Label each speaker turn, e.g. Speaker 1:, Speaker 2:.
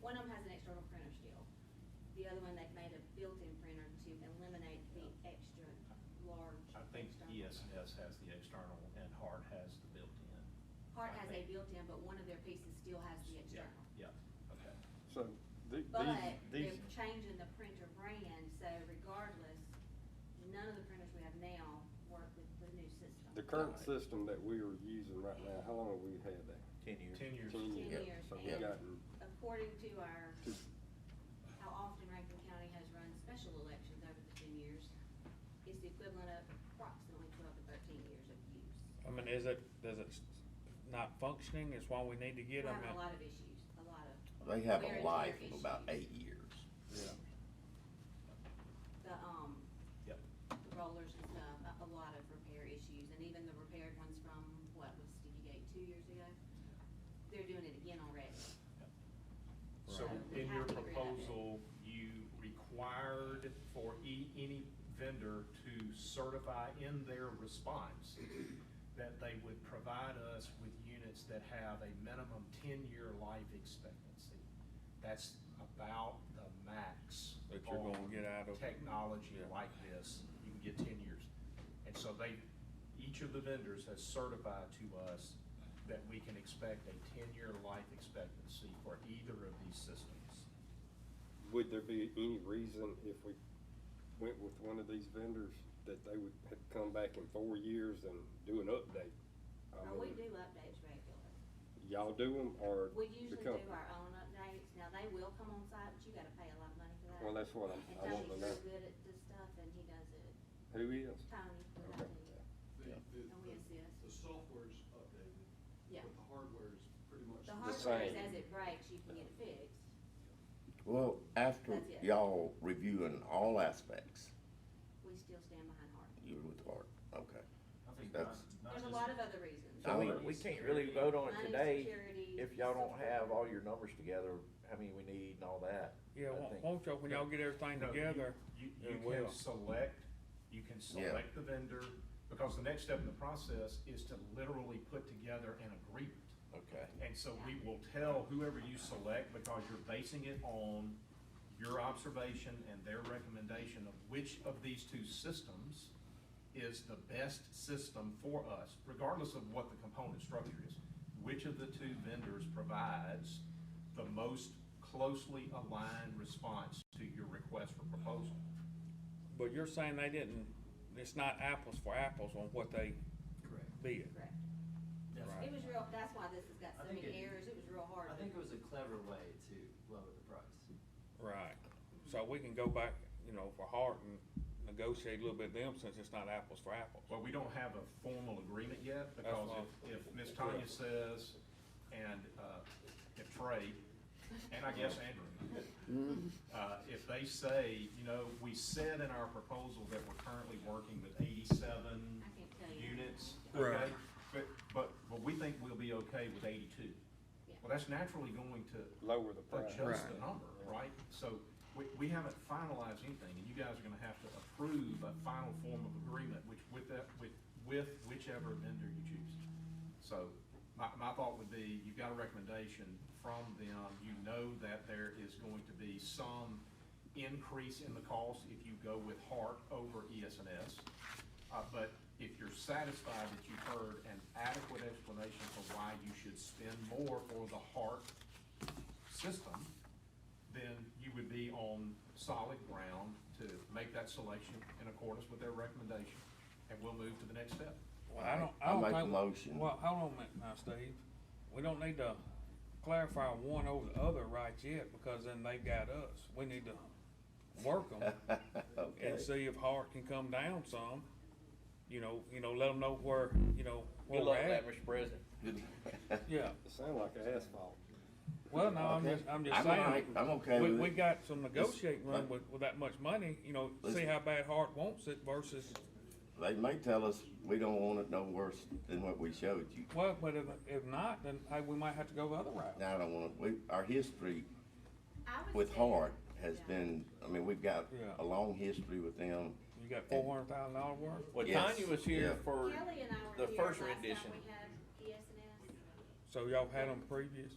Speaker 1: one of them has an external printer still. The other one, they've made a built-in printer to eliminate the extra large.
Speaker 2: I think
Speaker 1: external.
Speaker 2: ESS has the external and Hart has the built-in.
Speaker 1: Part has a
Speaker 2: I think.
Speaker 1: built-in, but one of their pieces still has the
Speaker 2: Yeah,
Speaker 1: external.
Speaker 2: Yeah, okay.
Speaker 3: So the-
Speaker 1: But
Speaker 3: these,
Speaker 1: they're
Speaker 3: these,
Speaker 1: changing the printer brand, so regardless, none of the printers we have now work with the new system.
Speaker 3: the current system that we are using right now, how long have we had that?
Speaker 4: Ten years.
Speaker 2: Ten years.
Speaker 3: Ten
Speaker 1: Ten
Speaker 3: years.
Speaker 1: years,
Speaker 3: So we've
Speaker 1: and-
Speaker 3: gotten
Speaker 1: According to our,
Speaker 3: two,
Speaker 1: how often Rankin County has run special elections over the ten years, it's the equivalent of approximately twelve to thirteen years of use.
Speaker 5: I mean, is it, is it not functioning, is why we need to
Speaker 1: We
Speaker 5: get them?
Speaker 1: have a lot of issues, a lot of.
Speaker 4: They have
Speaker 1: wear
Speaker 4: a
Speaker 1: and
Speaker 4: life
Speaker 1: tear
Speaker 4: of about
Speaker 1: issues.
Speaker 4: eight years.
Speaker 5: Yeah.
Speaker 1: The, um,
Speaker 2: Yep.
Speaker 1: the rollers and stuff, a, a lot of repair issues, and even the repaired ones from, what, was Stevie Gate two years ago? They're doing it again already.
Speaker 2: Yep.
Speaker 1: So
Speaker 2: So
Speaker 1: we
Speaker 2: in
Speaker 1: have
Speaker 2: your
Speaker 1: to agree on that.
Speaker 2: proposal, you required for e, any vendor to certify in their response that they would provide us with units that have a minimum ten-year life expectancy. That's about the max.
Speaker 5: That you're gonna
Speaker 2: on
Speaker 5: get out of-
Speaker 2: Technology
Speaker 5: Yeah.
Speaker 2: like this, you can get ten years. And so they, each of the vendors has certified to us that we can expect a ten-year life expectancy for either of these systems.
Speaker 3: would there be any reason if we went with one of these vendors that they would have come back in four years and do an update? I
Speaker 1: Now, Oh, we do
Speaker 3: mean,
Speaker 1: updates regularly.
Speaker 3: Y'all do them or?
Speaker 1: We
Speaker 3: the
Speaker 1: usually
Speaker 3: company?
Speaker 1: do our own updates. Now, they will come on site, but you gotta pay a lot of money for that.
Speaker 3: Well, that's what I'm- I want to
Speaker 1: And Tony's so
Speaker 3: know.
Speaker 1: good at this stuff, and he does it.
Speaker 3: Who is?
Speaker 1: Tony, what I
Speaker 3: Okay.
Speaker 1: do.
Speaker 6: The, the-
Speaker 1: And we assist.
Speaker 6: the, the software's updated.
Speaker 1: Yeah.
Speaker 6: But the hardware's pretty much.
Speaker 1: The
Speaker 3: same.
Speaker 1: hardware is as it breaks, you can get it fixed.
Speaker 4: Well, after
Speaker 1: That's it.
Speaker 4: y'all reviewing all aspects,
Speaker 1: We still stand behind hard.
Speaker 4: you're with Art, okay.
Speaker 7: I think not,
Speaker 4: That's-
Speaker 7: not
Speaker 1: There's
Speaker 7: just.
Speaker 1: a lot of other reasons.
Speaker 4: I mean,
Speaker 7: Money,
Speaker 4: we can't really vote on it
Speaker 1: Money,
Speaker 4: today
Speaker 1: security,
Speaker 4: if y'all don't have
Speaker 1: software.
Speaker 4: all your numbers together, how many we need and all that.
Speaker 5: Yeah,
Speaker 4: I
Speaker 5: won't,
Speaker 4: think-
Speaker 5: won't y'all, when y'all get everything
Speaker 2: No, you-
Speaker 5: together,
Speaker 2: You, you
Speaker 5: it
Speaker 2: can
Speaker 5: will.
Speaker 2: select, you can select the vendor, because the next step in the process is to literally put together an agreement.
Speaker 4: Okay.
Speaker 2: And so we will tell whoever you select, because you're basing it on your observation and their recommendation of which of these two systems is the best system for us, regardless of what the component structure is. Which of the two vendors provides the most closely aligned response to your request for proposal?
Speaker 5: But you're saying they didn't, it's not apples for apples on what they
Speaker 7: Correct.
Speaker 5: bid.
Speaker 1: Correct.
Speaker 7: That's-
Speaker 1: It was real, that's why this has got
Speaker 7: I
Speaker 1: so
Speaker 7: think
Speaker 1: many
Speaker 7: it-
Speaker 1: errors. It was real hard.
Speaker 7: I think it was a clever way to lower the price.
Speaker 5: Right, so we can go back, you know, for Hart and negotiate a little bit them since it's not apples for apples.
Speaker 2: Well, we don't have a formal agreement yet,
Speaker 5: That's
Speaker 2: because if, if Ms. Tanya says, and, uh, if Trey, and I guess Andrew, uh, if they say, you know, we said in our proposal that we're currently working with eighty-seven
Speaker 1: I can't tell you.
Speaker 2: units,
Speaker 5: Right.
Speaker 2: okay? But, but, but we think we'll be okay with eighty-two.
Speaker 1: Yeah.
Speaker 2: Well, that's naturally going to
Speaker 3: Lower the price.
Speaker 2: adjust the number, right? So we, we haven't finalized anything, and you guys are gonna have to approve a final form of agreement, which with that, with, with whichever vendor you choose. So my, my thought would be, you've got a recommendation from them, you know that there is going to be some increase in the cost if you go with Hart over E ESNS. Uh, but if you're satisfied that you've heard an adequate explanation for why you should spend more for the Hart system, then you would be on solid ground to make that selection in accordance with their recommendation, and we'll move to the next step.
Speaker 5: Well, I don't,
Speaker 4: I
Speaker 5: I don't
Speaker 4: make
Speaker 5: think.
Speaker 4: a motion.
Speaker 5: Well, hold on a minute now, Steve. We don't need to clarify one over the other right yet, because then they got us. We need to work them
Speaker 4: Oh,
Speaker 5: and
Speaker 4: Okay.
Speaker 5: see if Hart can come down some. You know, you know, let them know where, you know, where we're at.
Speaker 4: Mr. President.
Speaker 5: Yeah,
Speaker 3: It sound like asphalt.
Speaker 5: well, no, I'm just, I'm just
Speaker 4: I'm all right.
Speaker 5: saying.
Speaker 4: I'm okay
Speaker 5: We,
Speaker 4: with
Speaker 5: we
Speaker 4: it.
Speaker 5: got some negotiating room with, with that much money, you know, see
Speaker 4: Listen.
Speaker 5: how bad Hart wants it versus,
Speaker 4: They may tell us we don't want it no worse than what we showed you.
Speaker 5: well, but if, if not, then, hey, we might have to go the other route.
Speaker 4: Now, I don't want, we, our history
Speaker 1: I would
Speaker 4: with
Speaker 1: say-
Speaker 4: Hart has
Speaker 1: Yeah.
Speaker 4: been, I mean, we've got
Speaker 5: Yeah.
Speaker 4: a long history with them.
Speaker 5: You got four hundred thousand dollar worth?
Speaker 8: Well,
Speaker 4: Yes,
Speaker 8: Tanya was here
Speaker 4: yeah.
Speaker 8: for
Speaker 1: Kelly and I
Speaker 8: the
Speaker 1: were here
Speaker 8: first
Speaker 1: last time
Speaker 8: rendition.
Speaker 1: we had ESNS.
Speaker 5: So y'all had them previous?